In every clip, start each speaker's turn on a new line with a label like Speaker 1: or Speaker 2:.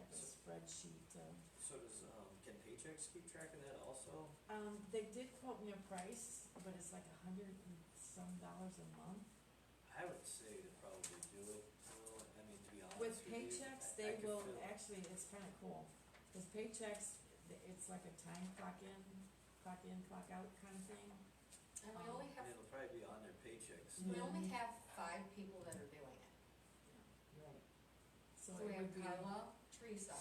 Speaker 1: checks um, keep track of that also?
Speaker 2: Um, they did quote me a price, but it's like a hundred and some dollars a month.
Speaker 1: I would say to probably do it, Well, I mean, to be honest
Speaker 2: With
Speaker 1: with you.
Speaker 2: paychecks,
Speaker 1: I- I
Speaker 2: they
Speaker 1: could
Speaker 2: will,
Speaker 1: feel-
Speaker 2: actually, it's kinda cool, cause paychecks, th- it's like a time clock in, clock in, clock out kind of thing.
Speaker 3: And we only have,
Speaker 1: And it'll probably be on their paychecks.
Speaker 3: we only have five people that are doing it.
Speaker 2: Right. So
Speaker 3: So
Speaker 2: it
Speaker 3: we have
Speaker 2: would be,
Speaker 3: Carla, Teresa,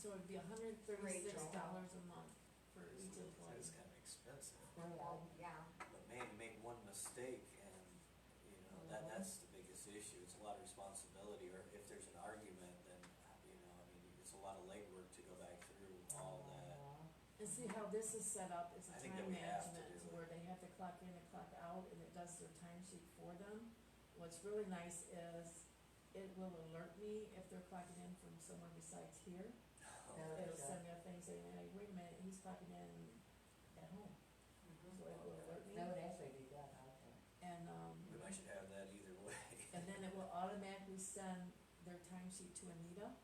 Speaker 2: so it'd be a hundred and thirty-six
Speaker 3: Rachel.
Speaker 2: dollars a month for each
Speaker 1: That
Speaker 2: employee.
Speaker 1: is kinda expensive,
Speaker 3: well, yeah,
Speaker 1: but man, you make one mistake and, you know, that,
Speaker 2: Uh-huh.
Speaker 1: that's the biggest issue, it's a lot of responsibility, or if there's an argument, then, you know, I mean, it's a lot of legwork to go back through
Speaker 2: Oh.
Speaker 1: all that.
Speaker 2: And see how this is set up, it's a
Speaker 1: I think that
Speaker 2: time
Speaker 1: we have to
Speaker 2: management,
Speaker 1: do it.
Speaker 2: where they have to clock in and clock out, and it does their time sheet for them. What's really nice is, it will alert me if they're clocking in from somewhere besides here, it'll send me a thing saying, hey, wait a minute, he's clocking in at home, so it will alert me.
Speaker 4: That would actually be good, I think.
Speaker 2: And, um,
Speaker 1: We might should have that either way.
Speaker 2: and then it will automatically send their time sheet to Anita,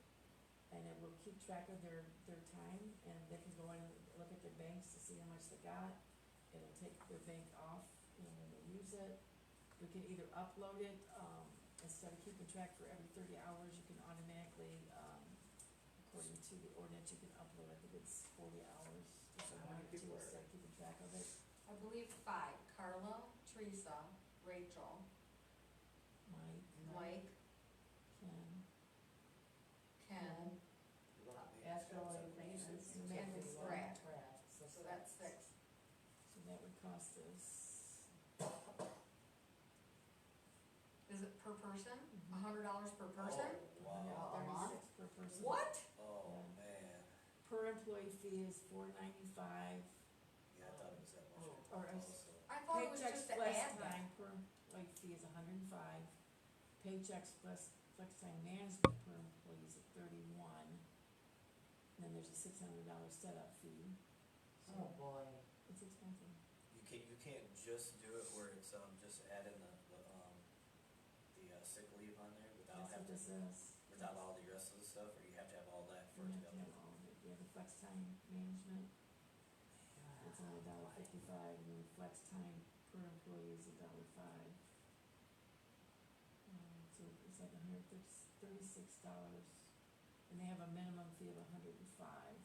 Speaker 2: and it will keep track of their, their time, and they can go in and look at their banks to see how much they got. It'll take their bank off, you know, when they use it. We can either upload it, um, instead of keeping track for every thirty hours, you can automatically, um, according to the ordinance, you can upload, I think it's forty hours, or
Speaker 1: How
Speaker 2: something,
Speaker 1: many
Speaker 2: to
Speaker 1: people are
Speaker 2: start keeping track of it.
Speaker 3: I believe five, Carla, Teresa, Rachel,
Speaker 2: Mike,
Speaker 3: Mike,
Speaker 2: Ken,
Speaker 3: Ken,
Speaker 2: Mhm.
Speaker 1: We're gonna make
Speaker 4: That's the
Speaker 1: expensive
Speaker 4: only thing
Speaker 1: pieces.
Speaker 4: that's-
Speaker 3: Man,
Speaker 4: that's
Speaker 3: it's
Speaker 4: the one
Speaker 3: crap.
Speaker 4: crap,
Speaker 3: so that's six.
Speaker 2: so that would cost us
Speaker 3: Is it per person?
Speaker 2: Mhm.
Speaker 3: A hundred dollars per person?
Speaker 1: Oh, Wow,
Speaker 4: A month?
Speaker 2: $136 per person.
Speaker 3: What?
Speaker 1: oh, man,
Speaker 2: Per employee fee is four ninety-five,
Speaker 1: yeah, I thought it was that much.
Speaker 4: Oh,
Speaker 2: or is-
Speaker 1: also.
Speaker 3: I thought it was
Speaker 2: paychecks
Speaker 3: just an
Speaker 2: plus
Speaker 3: ad.
Speaker 2: time per employee fee is hundred and five. Paychecks plus flex time management per employee is thirty-one. And Then there's a six hundred dollar setup fee,
Speaker 4: Oh,
Speaker 2: so
Speaker 4: boy.
Speaker 2: it's expensive.
Speaker 1: You can't, you can't just do it where it's, um, just adding the, the, um, the uh, sick leave on there without
Speaker 2: That's what
Speaker 1: having,
Speaker 2: this is.
Speaker 1: without all the rest of the stuff, or you have to have all that
Speaker 2: You
Speaker 1: for it to
Speaker 2: have
Speaker 1: go.
Speaker 2: to have all of it, you have the flex time management, it's only a dollar fifty-five, and then flex time per employee is a dollar five. Um, so it's like a hundred thirty- thirty-six dollars, and they have a minimum fee of a hundred and five.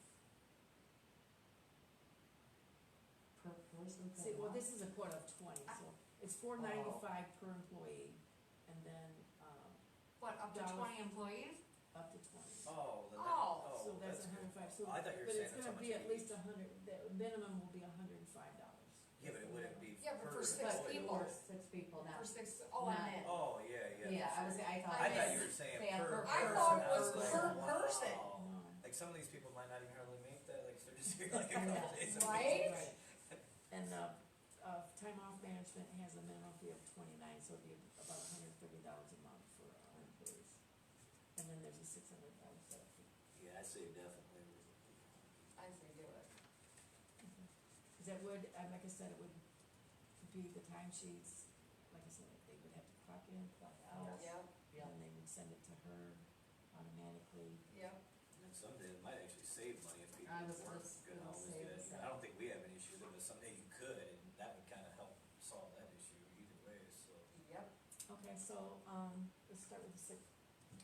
Speaker 4: Per person per month?
Speaker 2: See, well, this is a quote of twenty, so it's four ninety-five per employee, and then, um,
Speaker 3: What, up to
Speaker 2: Dollars.
Speaker 3: twenty employees?
Speaker 2: up to twenty.
Speaker 1: Oh, then that,
Speaker 3: Oh,
Speaker 1: oh,
Speaker 2: So
Speaker 1: that's
Speaker 2: that's a
Speaker 1: good.
Speaker 2: hundred and five, so,
Speaker 1: I thought you were
Speaker 2: but
Speaker 1: saying
Speaker 2: it's
Speaker 1: that's
Speaker 2: gonna
Speaker 1: how much
Speaker 2: be
Speaker 1: it
Speaker 2: at least
Speaker 1: is.
Speaker 2: a hundred, the minimum will be a hundred and five dollars.
Speaker 1: Yeah, but it wouldn't be per.
Speaker 3: Yeah, but for six
Speaker 4: But
Speaker 1: employee.
Speaker 3: people.
Speaker 4: for six people now.
Speaker 3: For six, oh, I meant.
Speaker 1: Oh, yeah, yeah.
Speaker 4: Yeah, I was, I thought.
Speaker 1: I
Speaker 3: I
Speaker 1: thought you
Speaker 3: meant-
Speaker 1: were saying
Speaker 4: they have
Speaker 1: per
Speaker 4: per-
Speaker 1: person.
Speaker 3: I thought it was
Speaker 1: was like,
Speaker 3: per person.
Speaker 1: wow.
Speaker 2: No.
Speaker 1: Like some of these people might not even hardly make that, like if they're just here like a couple
Speaker 4: Yeah,
Speaker 1: days a week.
Speaker 3: right?
Speaker 2: Right. And the, uh, time off management has a minimum fee of twenty-nine, so it'd be about a hundred and thirty dollars a month for our employees. And then there's a six hundred dollar setup fee.
Speaker 1: Yeah, I say definitely.
Speaker 3: I say do it.
Speaker 2: Cause that would, uh, like I said, it would be the time sheets, like I said, they would have to clock in, clock out.
Speaker 4: Yeah.
Speaker 3: Yep,
Speaker 4: Yeah.
Speaker 2: And they would send it to her automatically.
Speaker 3: yep.
Speaker 1: And then someday it might actually save money if people
Speaker 4: I was
Speaker 1: work
Speaker 4: just
Speaker 1: good
Speaker 4: gonna
Speaker 1: hours
Speaker 4: say
Speaker 1: good.
Speaker 4: the
Speaker 1: You know, I don't think we have an issue with it, but someday you could, and that would kinda help solve that issue either way, so.
Speaker 3: Yep.
Speaker 2: Okay, so, um, let's start with the sick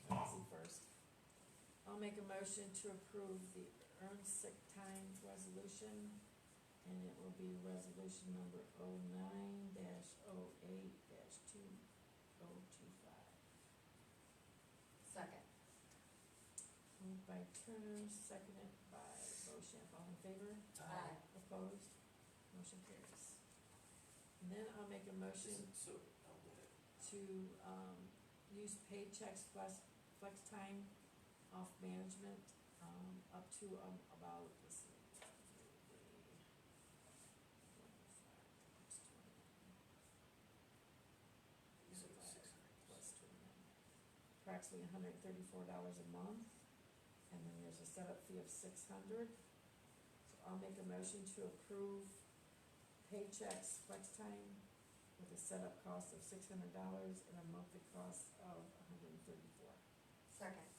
Speaker 2: policy first. I'll make a motion to approve the earned sick time resolution, and it will be resolution number oh nine dash oh eight dash two oh two five.
Speaker 3: Second.
Speaker 2: Moved by Turner, seconded by Bochamp, all in favor?
Speaker 3: Aye.
Speaker 2: Opposed? Motion carries. And then I'll make a motion
Speaker 1: So, I'll go ahead.
Speaker 2: to, um, use paychecks plus flex time off management, um, up to, um, about, let's see. one, two, three, four, five, six, twenty,
Speaker 1: You said it was six hundred.
Speaker 2: plus twenty-nine. Approximately hundred and thirty-four dollars a month, and then there's a setup fee of six hundred. So I'll make a motion to approve paychecks flex time with a setup cost of six hundred dollars and a monthly cost of $134.
Speaker 3: Second.